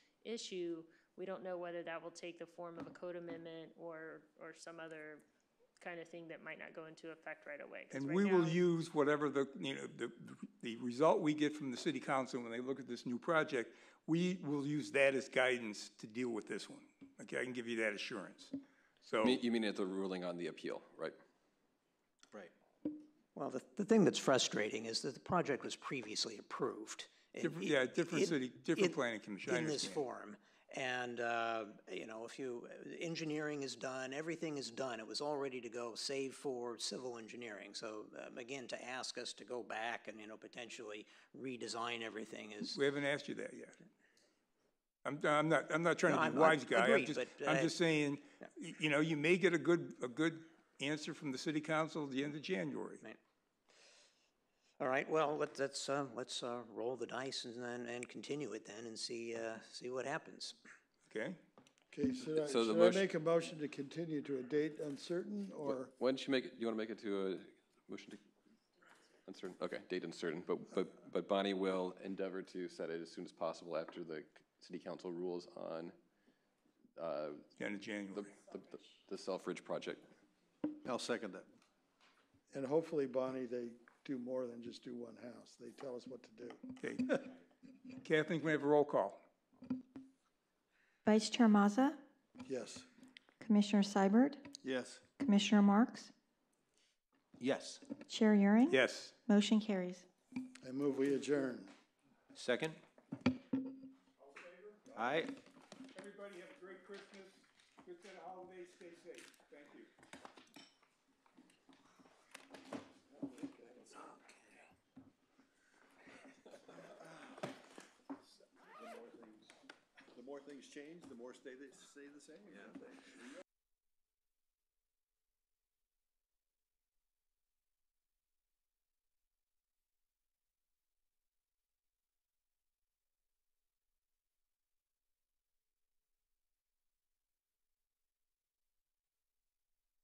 issue, we don't know whether that will take the form of a code amendment or, or some other kind of thing that might not go into effect right away. 'Cause And right we will now- use whatever the, you know, the, the result we get from the city council when they look at this new project, we will use that as guidance to deal with this one. Okay, I can give you that assurance. So, Me- You mean at the ruling on the appeal, right? Right. Well, the, the thing that's frustrating is that the project was previously approved. in- Different- yeah, different in- city- different in- planning commission, I In this understand. form. And, uh, you know, if you, engineering is done, everything is done. It was all ready to go, save for civil engineering. So um, again, to ask us to go back and, you know, potentially redesign everything is, we haven't asked you that yet. I'm, I'm not, I'm not trying No, to I'm- be I'm- wise guy. I'm agreed, just, but, I'm uh, just saying, y- you know, you may get a good, a good answer from the city council at the end of January. all right, well, let- let's, uh, let's uh, roll the dice and then, and continue it then and see, uh, see what happens. Okay? Okay, should I, So the should I motion- make a motion to continue to a date uncertain, or, Why don't you make, it? you want to make it to a motion to, uncertain, okay, date uncertain, but, but, but Bonnie will endeavor to set it as soon as possible after the city council rules on uh, the End of January. the- the- the Selfridge project. I'll second that. and hopefully, Bonnie, they do more than just do one house. They tell us what to do. Okay. Kathleen, can we have a roll call? Vice Chair Mazza, Yes. Commissioner Seibert, Yes. Commissioner Marks, Yes. Chair Euring. Yes. Motion carries. I move we adjourn. Second? Aye. Everybody have a great Christmas, good holidays, stay safe. Thank you. The more things change, the more stay, stay the same.